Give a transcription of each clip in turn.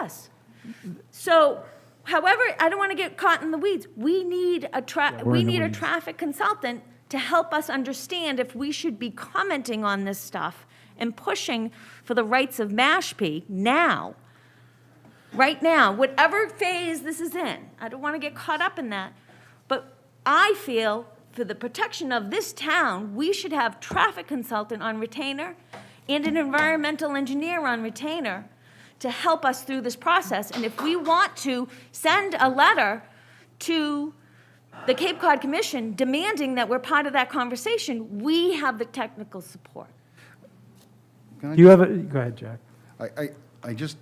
us. So, however, I don't want to get caught in the weeds. We need a tra, we're we in the need a weeds. traffic consultant to help us understand if we should be commenting on this stuff and pushing for the rights of Mashpee now. Right now, whatever phase this is in, I don't want to get caught up in that. But I feel for the protection of this town, we should have traffic consultant on retainer and an environmental engineer on retainer to help us through this process. And if we want to send a letter to the Cape Cod Commission demanding that we're part of that conversation, we have the technical support. Do you have a, go ahead, Jack. I, I, I just,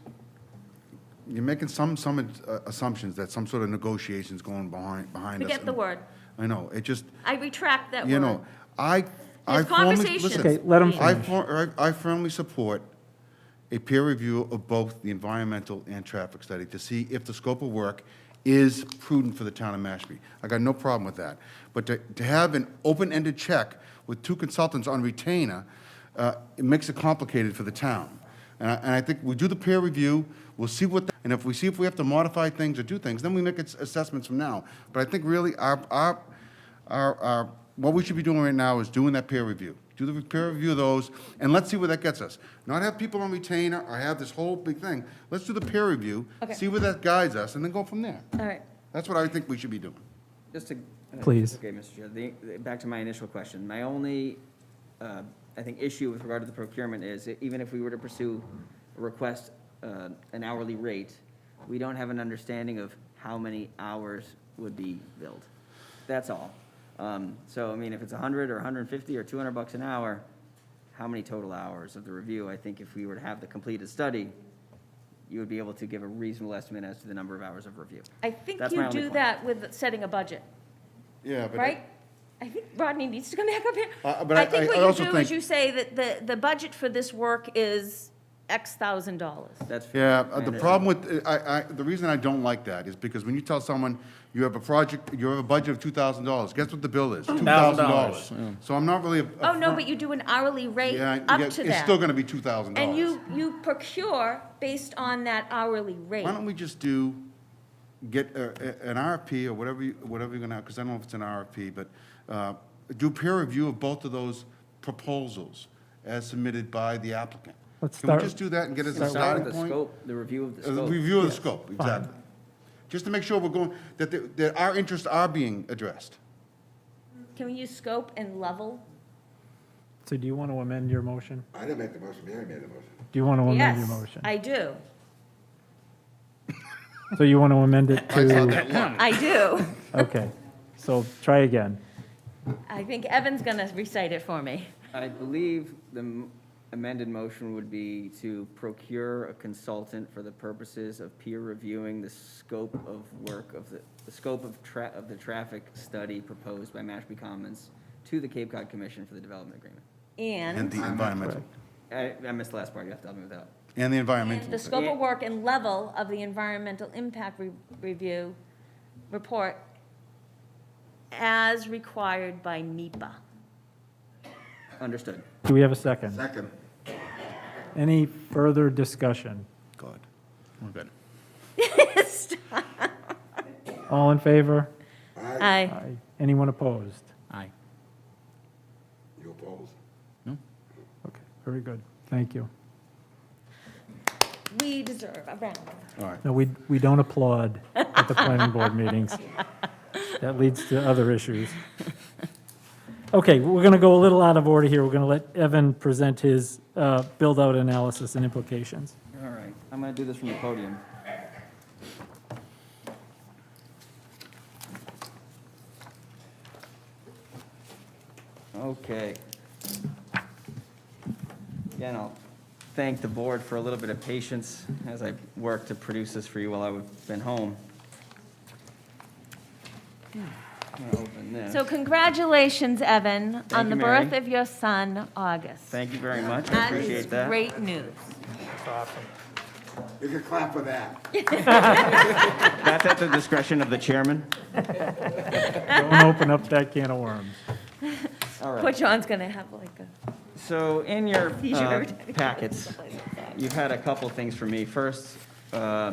you're making some, some uh, assumptions that some sort of negotiation's going behind, behind us. Forget the word. I know, it just, I retract that word. you know, I, I There's firmly, conversations. listen. Okay, let him I finish. fir- I I firmly support a peer review of both the environmental and traffic study to see if the scope of work is prudent for the town of Mashpee. I got no problem with that. But to, to have an open-ended check with two consultants on retainer, uh, it makes it complicated for the town. And I, and I think we do the peer review, we'll see what, the- and if we see if we have to modify things or do things, then we make its- assessments from now. But I think really our, our, our, our, what we should be doing right now is doing that peer review. Do the peer review of those, and let's see where that gets us. Not have people on retainer or have this whole big thing. Let's do the peer review, Okay. see where that guides us, and then go from there. All right. That's what I think we should be doing. Just to. uh, Please. Okay, Mr. Chair, the, the- back to my initial question. My only, uh, I think, issue with regard to the procurement is that even if we were to pursue a request, uh, an hourly rate, we don't have an understanding of how many hours would be billed. That's all. Um, so, I mean, if it's hundred or hundred and fifty or two hundred bucks an hour, how many total hours of the review? I think if we were to have the completed study, you would be able to give a reasonable estimate as to the number of hours of review. I think That's my you only do point. that with setting a budget, Yeah, but. right? I think Rodney needs to come back up here. Uh, but I- I- I think what also you do think- is you say that the, the budget for this work is X thousand dollars. That's. Yeah, uh, the my problem with, I, I, the reason I don't like that is because when you tell someone you have a project, you have a budget of two thousand dollars, guess what the bill is? Two thousand dollars. So I'm not really. a- a Oh, no, fir- but you do an hourly rate Yeah, yeah, up to It's still that. gonna be two thousand dollars. And you, you procure based on that hourly rate. Why don't we just do, get uh, a- an RFP or whatever, you- whatever you're gonna, because I don't know if it's an RFP, but uh, do peer review of both of those proposals as submitted by the applicant. Let's Can we start- just do that and get it as a Let's Start starting with the point? Uh, scope, the review of the A scope. Review of the scope, exactly. Just to make sure we're going, that, the- that our interests are being addressed. Can we use scope and level? So do you want to amend your motion? I didn't make the motion, Mary made the motion. Do you want to amend your Yes, motion? I do. So you want to amend it to, I do. okay. So try again. I think Evan's gonna recite it for me. I believe the m- amended motion would be to procure a consultant for the purposes of peer reviewing the scope of work of the, the scope of tra, of the traffic study proposed by Mashpee Commons to the Cape Cod Commission for the Development Agreement. And And the environmental, I, I missed the last part, you have to help me with that. and the the environmental. scope of work and level of the environmental impact re- review report as required by NEPA. Understood. Do we have a second? Second. Any further discussion? God, we're good. All in favor? Aye. Aye. Aye. Anyone opposed? Aye. You opposed? Okay, very good. Thank you. We deserve a round. All right. No, we, we don't applaud at the planning board meetings. That leads to other issues. Okay, we're going to go a little out of order here. We're going to let Evan present his uh, build-out analysis and implications. All right, I'm gonna do this from the podium. Okay. Again, I'll thank the board for a little bit of patience as I worked to produce this for you while I've been home. I'm gonna open this. So congratulations, Evan, on you, the birth Mary. of your son, August. Thank you very much, I That is appreciate that. great news. You can clap for that. That's at the discretion of the chairman. Don't open up that can of worms. All right. Poor John's gonna have like a So in your seizure uh, every time. he goes packets, someplace like that. you've had a couple things for me. First, uh,